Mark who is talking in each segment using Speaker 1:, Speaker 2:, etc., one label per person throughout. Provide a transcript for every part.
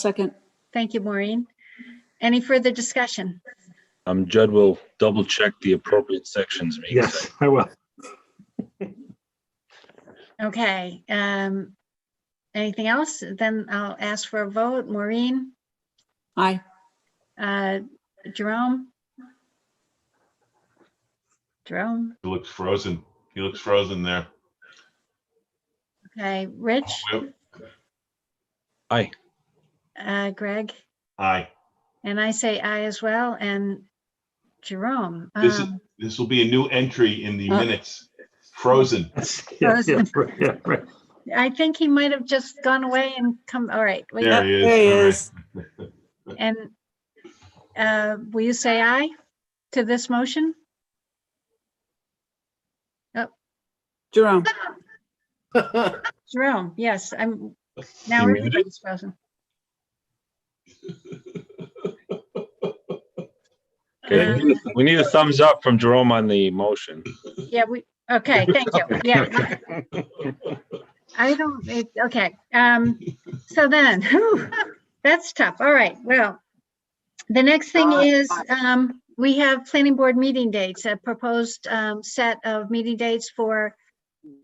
Speaker 1: Second,
Speaker 2: Thank you, Maureen. Any further discussion?
Speaker 3: Um, Judd will double check the appropriate sections. being sent.
Speaker 4: Yes, I will.
Speaker 2: Okay. um, Anything else? Then I'll ask for a vote. Maureen,
Speaker 1: aye.
Speaker 2: uh, Jerome? Jerome,
Speaker 5: He looks frozen. He looks frozen there.
Speaker 2: okay. Rich,
Speaker 5: Yep.
Speaker 3: Aye.
Speaker 2: uh, Greg,
Speaker 5: Aye.
Speaker 2: and I say aye as well, and Jerome.
Speaker 5: This is-
Speaker 2: um,
Speaker 5: This will be a new entry in the
Speaker 1: Uh.
Speaker 5: minutes. Frozen.
Speaker 4: Yes, yeah, yeah, right, yeah, right.
Speaker 2: I think he might have just gone away and come, all right. wait,
Speaker 5: There he is.
Speaker 1: There he
Speaker 5: All
Speaker 1: is.
Speaker 5: right.
Speaker 2: And uh, will you say aye to this motion? Oh.
Speaker 1: Jerome,
Speaker 2: Jerome, yes, I'm,
Speaker 3: You
Speaker 2: now
Speaker 3: muted?
Speaker 2: everybody's frozen.
Speaker 3: Okay, we need a- we need a thumbs up from Jerome on the motion.
Speaker 2: Yeah, we, okay, thank you. Yeah. I don't, it- okay, um, so then, whew, that's tough. All right, well. The next thing is, um, we have planning board meeting dates, a proposed, um, set of meeting dates for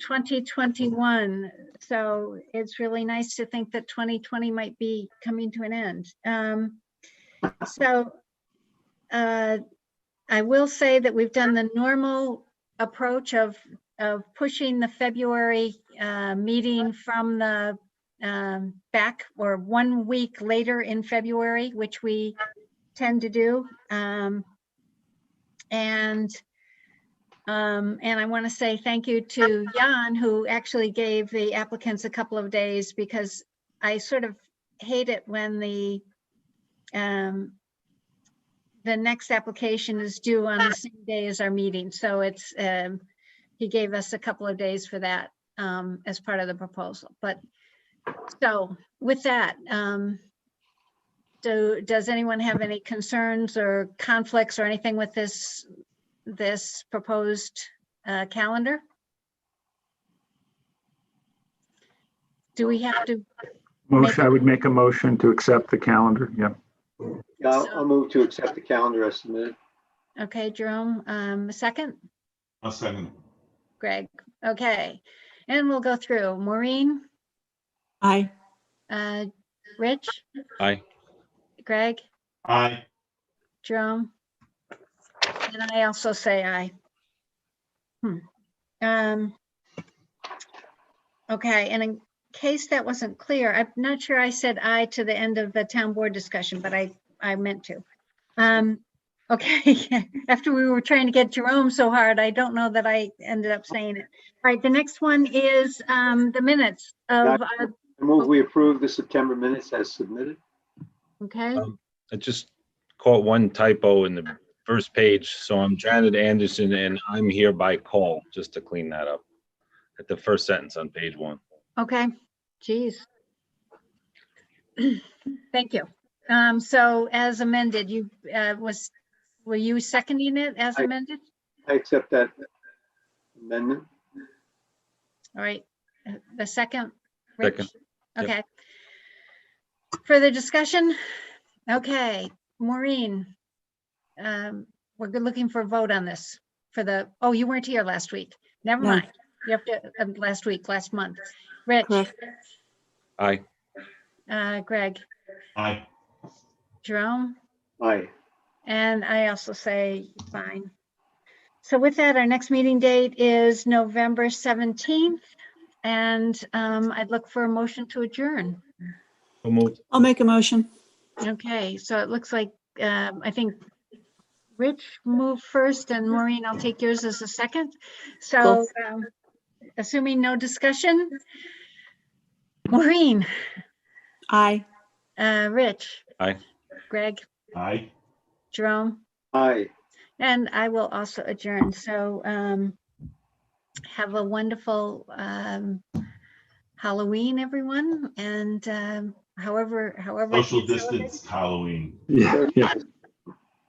Speaker 2: twenty twenty-one. So it's really nice to think that twenty twenty might be coming to an end. Um, so, uh, I will say that we've done the normal approach of, of pushing the February uh, meeting from the um, back or one week later in February, which we tend to do. Um, And, um, and I want to say thank you to Jan, who actually gave the applicants a couple of days because I sort of hate it when the um, the next application is due on the same day as our meeting, so it's, um, he gave us a couple of days for that, um, as part of the proposal, but, so, with that, um, do, does anyone have any concerns or conflicts or anything with this, this proposed, uh, calendar? Do we have to,
Speaker 4: Motion, I would make a motion to accept the calendar, yeah.
Speaker 6: Yeah, I'll I'll move to accept the calendar as submitted.
Speaker 2: okay, Jerome, um, a second?
Speaker 5: I'll second.
Speaker 2: Greg. Okay, and we'll go through. Maureen,
Speaker 1: aye.
Speaker 2: uh, Rich?
Speaker 3: Aye.
Speaker 2: Greg,
Speaker 5: Aye.
Speaker 2: Jerome? And I also say aye. Hmm. Um. Okay, and in case that wasn't clear, I'm not sure I said aye to the end of the town board discussion, but I, I meant to. Um, okay, after we were trying to get Jerome so hard, I don't know that I ended up saying it. All right, the next one is, um, the minutes of, our-
Speaker 6: I move we approve the September minutes as submitted.
Speaker 2: okay,
Speaker 3: I just caught one typo in the first page, so I'm Janet Anderson and I'm here by call, just to clean that up. At the first sentence on page one.
Speaker 2: okay, geez. Thank you. Um, so as amended, you, uh, was, were you seconding it as
Speaker 6: I-
Speaker 2: amended?
Speaker 6: I accept that amendment.
Speaker 2: All right, uh, the second?
Speaker 3: Second,
Speaker 2: Rich?
Speaker 3: yep.
Speaker 2: Okay. Further discussion? Okay, Maureen. um, We're good looking for a vote on this for the, oh, you weren't here last week. Never
Speaker 1: No.
Speaker 2: mind. You have to, um, last week, last month. Rich,
Speaker 1: Correct.
Speaker 3: Aye.
Speaker 2: uh, Greg,
Speaker 5: Aye.
Speaker 2: Jerome?
Speaker 6: Aye.
Speaker 2: And I also say fine. So with that, our next meeting date is November 17th. And um, I'd look for a motion to adjourn.
Speaker 3: So moved.
Speaker 1: I'll make a motion.
Speaker 2: Okay, so it looks like, um, I think Rich moved first and Maureen, I'll take yours as a second. So um, assuming no discussion. Maureen,
Speaker 1: Aye.
Speaker 2: uh, Rich.
Speaker 3: Aye.
Speaker 2: Greg,
Speaker 5: Aye.
Speaker 2: Jerome.
Speaker 6: Aye.
Speaker 2: And I will also adjourn, so um, have a wonderful um, Halloween, everyone, and um, however, however.
Speaker 5: Social distance Halloween.
Speaker 4: Yeah, yeah.